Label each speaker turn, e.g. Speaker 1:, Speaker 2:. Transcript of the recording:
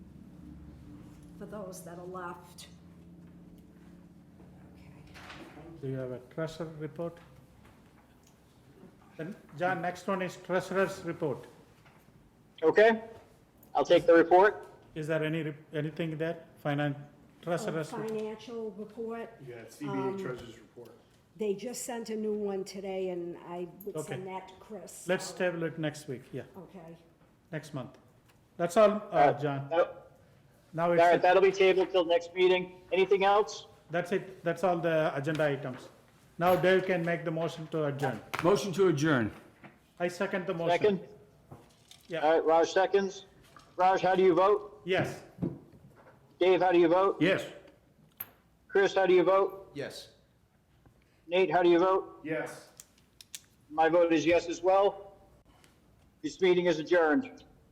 Speaker 1: for those that are left.
Speaker 2: Do you have a treasurer report? Then, John, next one is treasurer's report.
Speaker 3: Okay, I'll take the report.
Speaker 2: Is there any, rep- anything there, finance, treasurer's? report?
Speaker 1: Oh, Financial report,
Speaker 4: Yeah, it's CBA Treasurer's report.
Speaker 1: they just sent a new one today, and I would
Speaker 2: Okay.
Speaker 1: send that to Chris.
Speaker 2: Let's table it next week, yeah,
Speaker 1: Okay,
Speaker 2: next month. That's all, uh, John.
Speaker 3: That-
Speaker 2: Now
Speaker 3: All right,
Speaker 2: it's,
Speaker 3: that'll be tabled till next meeting. Anything else?
Speaker 2: that's it, that's all the agenda items. Now Dave can make the motion to adjourn.
Speaker 5: Motion to adjourn.
Speaker 2: I second the motion.
Speaker 3: Second?
Speaker 2: Yeah.
Speaker 3: All right, Raj seconds. Raj, how do you vote?
Speaker 2: Yes,
Speaker 3: Dave, how do you vote?
Speaker 5: Yes.
Speaker 3: Chris, how do you vote?
Speaker 5: Yes.
Speaker 3: Nate, how do you vote?
Speaker 4: Yes.
Speaker 3: My vote is yes as well. This meeting is adjourned.